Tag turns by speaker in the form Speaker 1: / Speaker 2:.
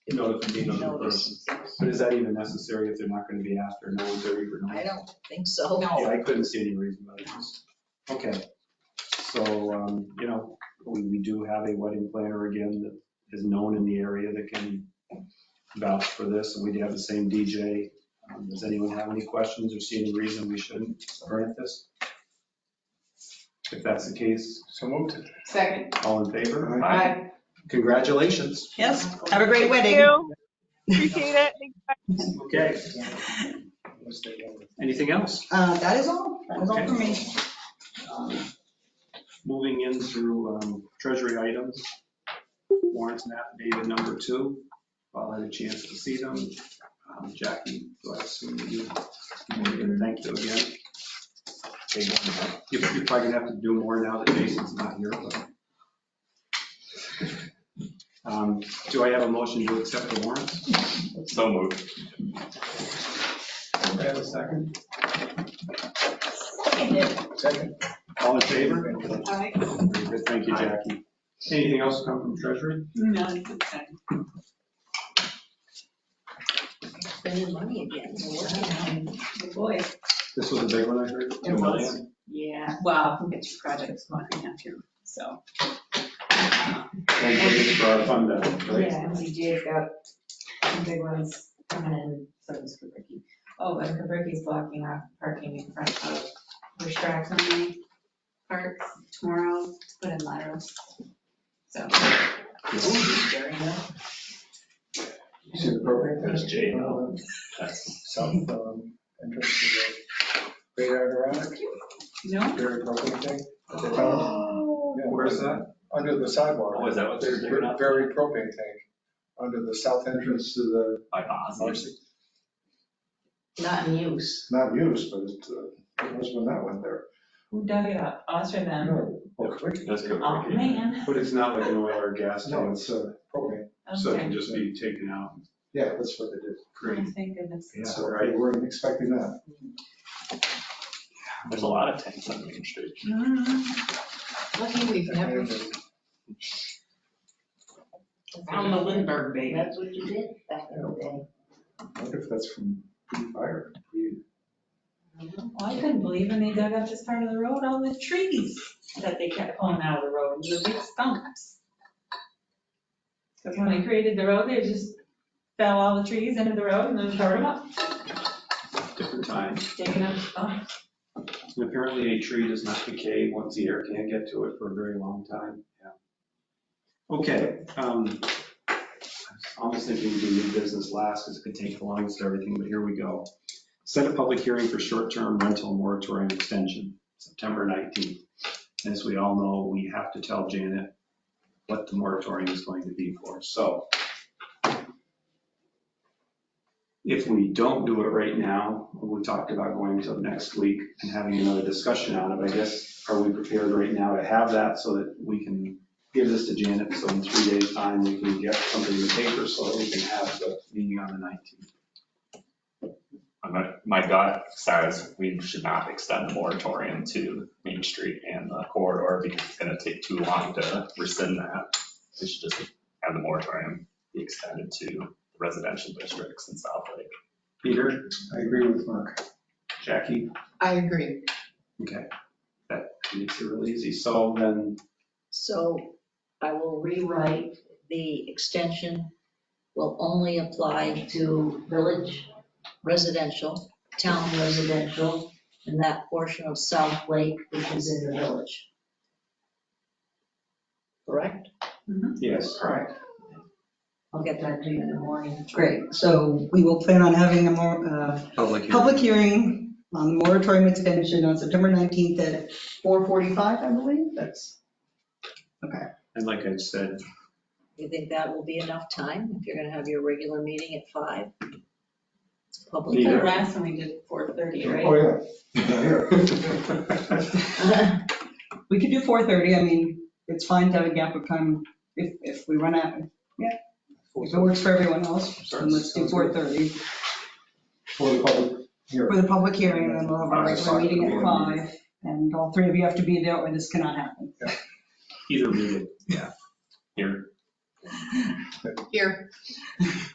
Speaker 1: notice and be another person.
Speaker 2: notice.
Speaker 1: But is that even necessary if they're not gonna be asked or no one's ever even?
Speaker 2: I don't think so.
Speaker 1: Yeah, I couldn't see any reason why it's, okay. So, um, you know, we, we do have a wedding planner again that is known in the area that can vouch for this, and we do have the same DJ. Um, Does anyone have any questions or see any reason we shouldn't grant this? If that's the case,
Speaker 3: So moved.
Speaker 4: Second.
Speaker 1: all in favor?
Speaker 4: Aye.
Speaker 1: Congratulations.
Speaker 2: Yes, have a great
Speaker 5: Thank
Speaker 2: wedding.
Speaker 5: you. Appreciate it.
Speaker 1: Okay, anything else?
Speaker 2: Uh, that is all, that is all for me.
Speaker 1: Um, Moving in through um, treasury items, warrants and affidavit number two. I'll have a chance to see them. Um, Jackie, do I assume you, Morgan, thank you again. You're you're probably gonna have to do more now that Jason's not here, but. Um, Do I have a motion to accept the warrants?
Speaker 3: So moved.
Speaker 1: Do I have a second?
Speaker 2: Seconded.
Speaker 3: Second.
Speaker 1: All in favor?
Speaker 4: Aye.
Speaker 1: Very good. Thank you, Jackie. Anything else come from treasury?
Speaker 4: None, okay.
Speaker 2: Spending money again, we're working on it.
Speaker 4: Good boy.
Speaker 1: This was a big one I heard.
Speaker 4: It was. Yeah, well, we'll get your projects looking up here, so.
Speaker 1: Thank you for our fund uh, balance, right?
Speaker 4: Yeah, MCGA's got some big ones coming in, so does Kabuki. Oh, and Kabuki's blocking off parking in front of Restrepo Park tomorrow, to put in laterals. So.
Speaker 2: Very good.
Speaker 3: She's appropriate, that's Jay. That's south, um, entrance to the radar around,
Speaker 4: No?
Speaker 3: very appropriate thing that they found.
Speaker 4: Oh.
Speaker 3: Yeah.
Speaker 1: Where's that?
Speaker 3: Under the sidewalk.
Speaker 6: Oh, is that what they're digging up?
Speaker 3: Very propane tank, under the south entrance to the,
Speaker 6: By Bosnians.
Speaker 3: it's
Speaker 2: Not in use.
Speaker 3: not used, but it's, uh, it must have been that one there.
Speaker 4: Who dug it up? Us or them?
Speaker 3: No, well, quick.
Speaker 6: That's good.
Speaker 4: Oh, man.
Speaker 1: But it's not like an oil or gas
Speaker 3: No,
Speaker 1: tank,
Speaker 3: it's uh, propane,
Speaker 1: so it
Speaker 4: Okay.
Speaker 1: can just be taken out.
Speaker 3: yeah, that's what they did.
Speaker 1: Great.
Speaker 4: Thank goodness.
Speaker 1: Yeah,
Speaker 3: So
Speaker 1: right.
Speaker 3: we weren't expecting that.
Speaker 6: There's a lot of tanks on Main Street.
Speaker 4: Mm.
Speaker 2: Lucky we've never.
Speaker 3: uh,
Speaker 4: On the Lindbergh baby.
Speaker 2: That's what you did back in the day.
Speaker 3: I wonder if that's from fire.
Speaker 4: Well, I couldn't believe when they dug up this part of the road, all the trees that they kept pulling out of the road, and the big stumps. Because when they created the road, they just fell all the trees into the road and then covered them up,
Speaker 1: Different times.
Speaker 4: taking up stumps.
Speaker 1: And apparently a tree does not decay once the air can't get to it for a very long time. Yeah. Okay, um, I was almost thinking we do new business last because it could take the longest of everything, but here we go. Set a public hearing for short-term rental moratorium extension, September 19th. As we all know, we have to tell Janet what the moratorium is going to be for, so. If we don't do it right now, we talked about going till next week and having another discussion on it, I guess, are we prepared right now to have that so that we can give this to Janet, so in three days' time, we can get something in the paper so that we can have the meeting on the 19th?
Speaker 6: I'm not- My gut says we should not extend the moratorium to Main Street and the corridor because it's gonna take too long to rescind that. We should just have the moratorium be extended to residential districts in South Lake.
Speaker 1: Peter,
Speaker 3: I agree with Mark.
Speaker 1: Jackie,
Speaker 2: I agree.
Speaker 1: okay, that makes it real easy, so then,
Speaker 2: So I will rewrite the extension will only apply to village residential, town residential, and that portion of South Lake which is in the village. Correct?
Speaker 1: yes.
Speaker 2: Correct. I'll get that to you in the morning.
Speaker 7: Great, so we will plan on having a more, uh,
Speaker 1: Public
Speaker 7: public hearing on the moratorium extension on September 19th at 4:45, I believe, that's, okay.
Speaker 1: And like I said,
Speaker 2: You think that will be enough time if you're going to have your regular meeting at five? It's a public
Speaker 1: Yeah.
Speaker 4: The
Speaker 2: hearing.
Speaker 4: last one we did four thirty,
Speaker 3: Oh,
Speaker 4: right?
Speaker 3: yeah. Yeah, here.
Speaker 7: We could do 4:30, I mean, it's fine to have a gap of time if, if we run out, if it works for everyone else, then let's do 4:30.
Speaker 3: For the public
Speaker 7: For
Speaker 3: here.
Speaker 7: the public hearing, then we'll have our
Speaker 1: Five
Speaker 7: regular
Speaker 1: o'clock.
Speaker 7: meeting at 5, and all three of you have to be there, or this cannot happen.
Speaker 1: either meeting,
Speaker 6: Here,
Speaker 3: Here.